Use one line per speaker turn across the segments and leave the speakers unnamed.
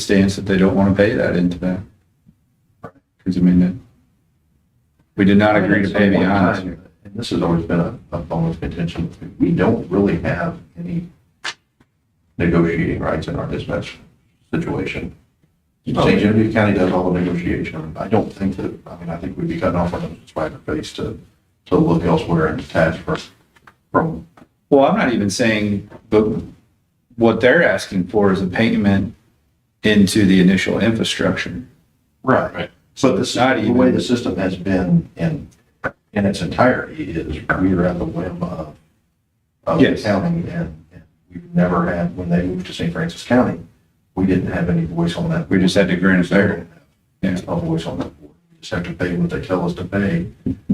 stance that they don't want to pay that into that. Because I mean, that- we did not agree to pay
At some point in
beyond.
time, And this has always been a, a bone of contention. We don't really have any negotiating rights in our dispatch situation. St. Genevieve County does all the negotiation. I don't think that, I mean, I think we'd be cutting off our noses by our face to, to look elsewhere and detach from, from
Well, I'm not even saying, but what they're asking for is a payment into the initial infrastructure.
Right. But the,
Not
sy- the
even-
way the system has been in, in its entirety is we are at the whim of, of the
Yes.
county and and we've never had, when they moved to St. Francis County, we didn't have any voice on that.
We just had to grant it there. Yeah.
No voice on that. board. We Just have to pay what they tell us to pay.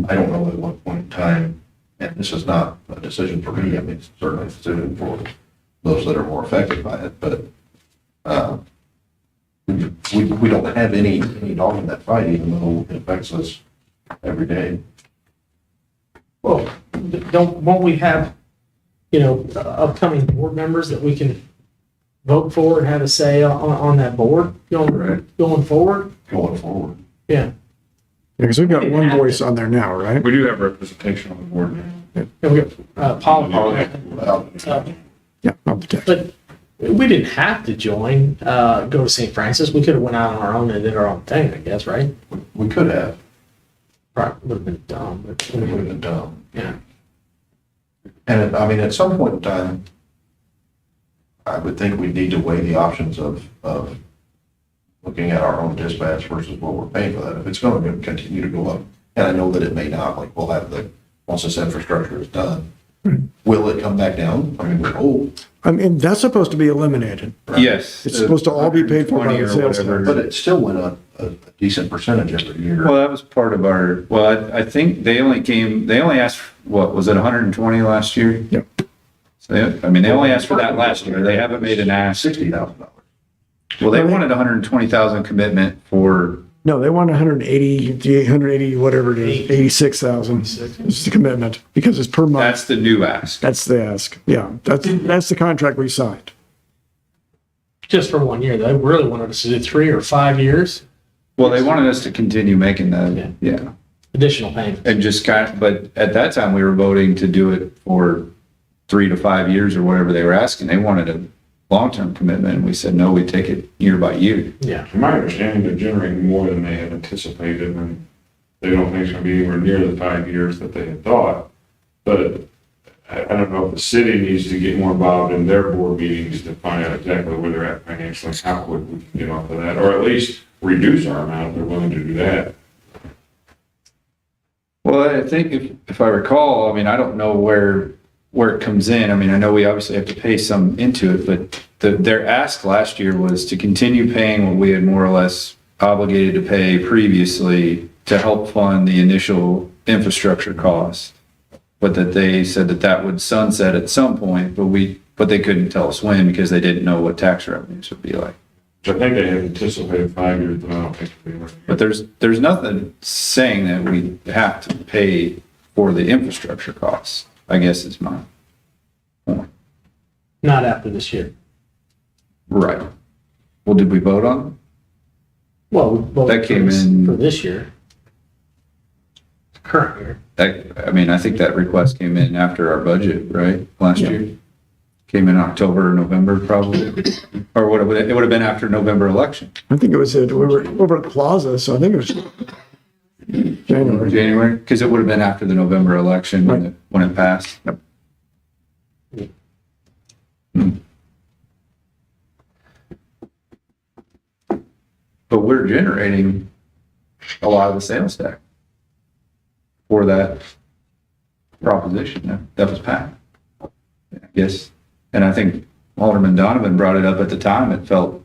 I don't know at what point in time, and this is not a decision for me, I mean, it's certainly it's a decision for those that are more affected by it, but, uh, we, we don't have any, any dog in that fight, even though it affects us every day.
Well, don't, won't we have, you know, upcoming board members that we can vote for and have a say on, on that board
Right.
going, going forward?
Going forward.
Yeah,
Because we've got one voice on there now, right?
We do have representation on the board.
and we, uh, Paul, Paul,
Well,
uh,
Yeah, I'll protect.
but we didn't have to join, uh, go to St. Francis. We could have went out on our own and did our own thing, I guess, right?
We could have,
Probably would have been dumb, but
it would have been done.
yeah.
And I mean, at some point in time, I would think we'd need to weigh the options of, of looking at our own dispatch versus what we're paying for that. If it's going to continue to go up, and I know that it may not, like we'll have the, once this infrastructure is done, will it come back down? I mean, we're old,
I mean, that's supposed to be eliminated.
Yes.
It's supposed to all be paid for by
120
the
or
sales tax.
whatever.
but it still went up a decent percentage every year.
Well, that was part of our, well, I I think they only came, they only asked, what, was it 120 last year?
Yep.
So, they- I mean, they only asked for that last year. They haven't made an ask.
Sixty thousand dollars.
Well, they wanted 120,000 commitment for,
No, they want 180, the 180, whatever it is, 86,000 is the commitment because it's per month.
that's the new ask.
That's the ask. Yeah, that's, that's the contract we signed.
Just for one year. They really wanted us to do three or five years
Well, they wanted us to continue making that, yeah.
additional payment.
And just kind, of- but at that time, we were voting to do it for three to five years or whatever they were asking. They wanted a long-term commitment, and we said, no, we take it year by year.
Yeah.
From my understanding, they're generating more than they had anticipated, and they don't think it's gonna be anywhere near the five years that they had thought. But I, I don't know if the city needs to get more involved in their board meetings to find out exactly where they're at financially, how would we can get off of that, or at least reduce our amount if they're willing to do that.
Well, I think if, if I recall, I mean, I don't know where, where it comes in. I mean, I know we obviously have to pay some into it, but the, their ask last year was to continue paying what we had more or less obligated to pay previously to help fund the initial infrastructure cost. But that they said that that would sunset at some point, but we, but they couldn't tell us when because they didn't know what tax revenues would be like.
Which I think they had anticipated five years, but I don't think they were.
But there's, there's nothing saying that we have to pay for the infrastructure costs, I guess is my point.
Not after this year.
Right. Well, did we vote on? it?
Well, we voted
That came
for this-
in-
for this year. Current year.
That, I mean, I think that request came in after our budget, right, last year? Came in October, November probably, or what, it would- it would have been after November election,
I think it was, at- we were over at Plaza, so I think it was
or
January.
January, because it would have been after the November election when
Right.
it, when it passed.
Yep.
Hmm. But we're generating a lot of the sales tax for that proposition that, that was passed. Yes, and I think Alderman Donovan brought it up at the time, it felt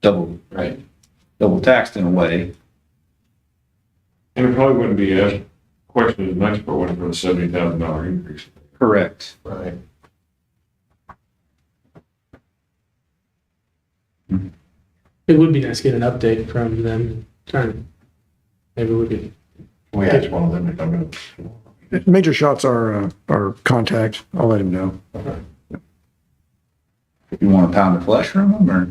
double, right, double taxed in a way.
And it probably wouldn't be asked, questioned as much, but went for the seventy thousand dollar increase.
Correct.
Right.
It would be nice to get an update from them, trying, to- maybe we could,
We asked one of them to come in.
Major Shots are, uh, our contact. I'll let him know.
You want to pound of flesh from them or?